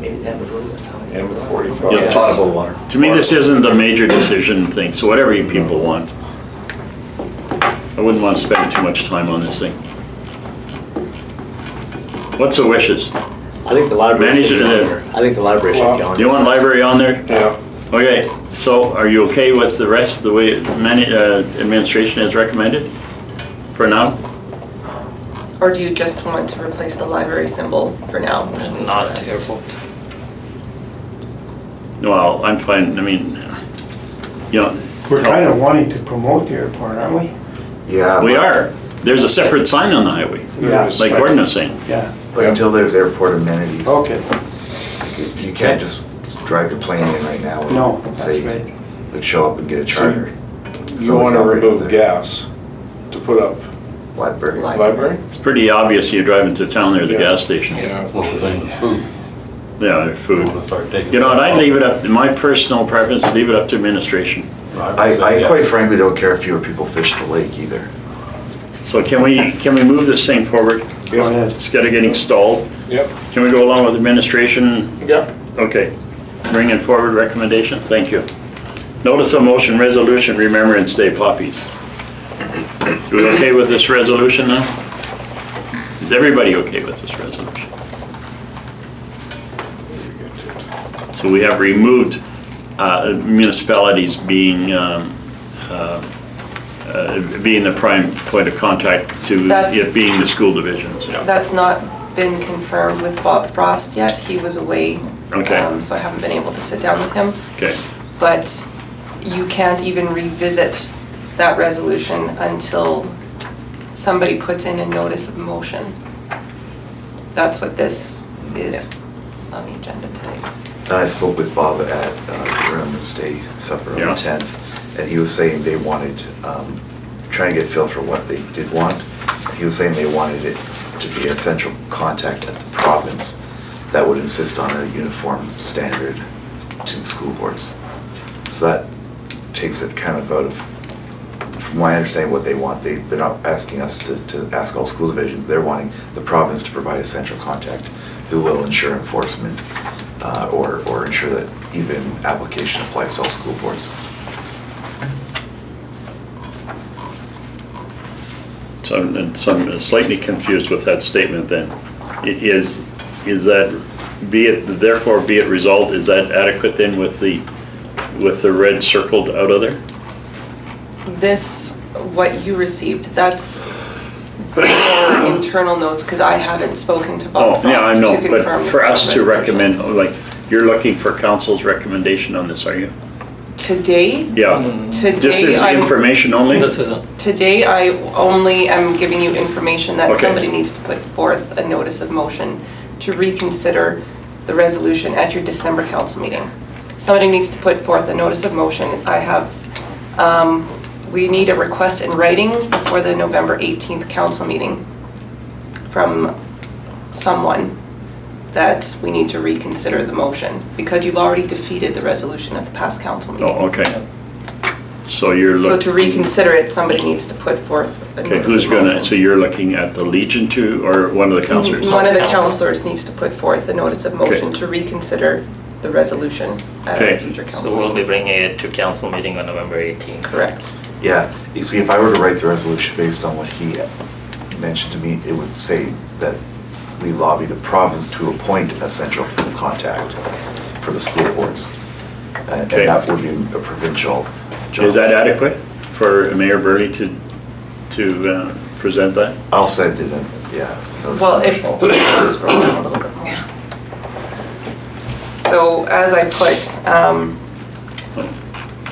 Maybe that would rule us out. And with 45. Yeah, potable water. To me, this isn't a major decision thing, so whatever you people want. I wouldn't want to spend too much time on this thing. What's the wishes? I think the library Manager should be on there. there. I think the library should be on Do you there. want library on there? Yeah, Okay, so are you okay with the rest, the way many, uh, administration has recommended for now? Or do you just want to replace the library symbol for now? Not terrible. Well, I'm fine, I mean, you know. We're kind of wanting to promote the airport, aren't we? Yeah. We are. There's a separate sign on the highway, Yeah. Yes. like Gordon was saying. Yeah, But until there's airport amenities, okay, you can't just drive your plane in right now. and no, that's say, right. Like show up and get a charter. you want to remove gas to put up Library. library? It's pretty obvious you're driving to town, there's a Yeah. gas station. Yeah, Yeah. Well, the same as food. there's food. Let's start taking You know, and I'd some- leave it up, my personal preference, leave it up to administration. Right, I, so, I yeah. quite frankly don't care if fewer people fish the lake either. So can we, can we move this thing forward? Go ahead. It's gotta get installed. Yep, Can we go along with administration? yep. Okay. Bringing forward recommendation, thank you. Notice of motion resolution, Remembrance Day poppies. We okay with this resolution now? Is everybody okay with this resolution? So we have removed uh, municipalities being, um, uh, uh, being the prime point of contact to it That's- being the school divisions. That's not been confirmed with Bob Frost yet. He was away. Okay. um, So I haven't been able to sit down with him. Okay, But you can't even revisit that resolution until somebody puts in a notice of motion. That's what this is on the agenda today. I spoke with Bob at uh, the Remembrance Day supper on the Yeah. 10th, and he was saying they wanted, um, trying to get feel for what they did want. He was saying they wanted it to be a central contact at the province that would insist on a uniform standard to the school boards. So that takes it kind of out of, from my understanding, what they want. They, they're not asking us to, to ask all school divisions. They're wanting the province to provide a central contact who will ensure enforcement uh, or, or ensure that even application applies to all school boards. so I'm, so I'm slightly confused with that statement then. It Is, is that, be it, therefore be it resolved, is that adequate then with the, with the red circled out of there? This, what you received, that's your internal notes, because I haven't spoken to Bob Oh, yeah, I Frost to know, confirm. but for the us to resolution. recommend, oh, like, you're looking for council's recommendation on this, are you? Today, Yeah. Mm. Mm. This today, is I'm, information only? This isn't, today I only am giving you information that Okay. somebody needs to put forth a notice of motion to reconsider the resolution at your December council meeting. Somebody needs to put forth a notice of motion. I have, um, we need a request in writing before the November 18th council meeting from someone that we need to reconsider the motion because you've already defeated the resolution at the past council meeting. Oh, okay. So you're So to looking, reconsider it, somebody needs to put forth a okay, notice who's of gonna, motion. so you're looking at the Legion two or one of the councilors? One of the Council. councilors needs to put forth a notice of motion Okay. to reconsider the resolution at Okay. a future so council we'll be meeting. bringing it to council meeting on November 18th. Correct. Yeah, you see, if I were to write the resolution based on what he mentioned to me, it would say that we lobby the province to appoint a central contact for the school boards. Uh, And Okay. and that would be a provincial job. Is that adequate for Mayor Burley to, to uh, present that? I'll send it in, yeah. those Well, if, provincial. scroll down a little bit more. So as I put, um,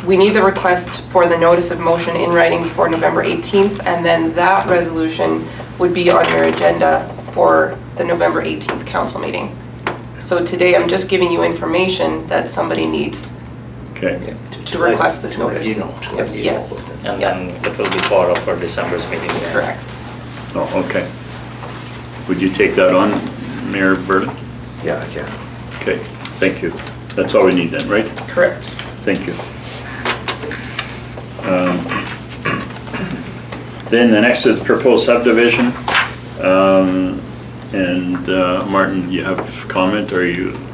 we need the request for the notice of motion in writing for November 18th, and then that resolution would be on your agenda for the November 18th council meeting. So today, I'm just giving you information that somebody needs Okay, to request this To let notice. you know, to let you know. Yes, And then it will be part of our December's meeting. yeah. correct. oh, okay. Would you take that on, Mayor Burley? Yeah, I can. Okay, thank you. That's all we need then, right? Correct. Thank you. Um, Then the next is proposed subdivision. Um, And uh, Martin, you have comment or you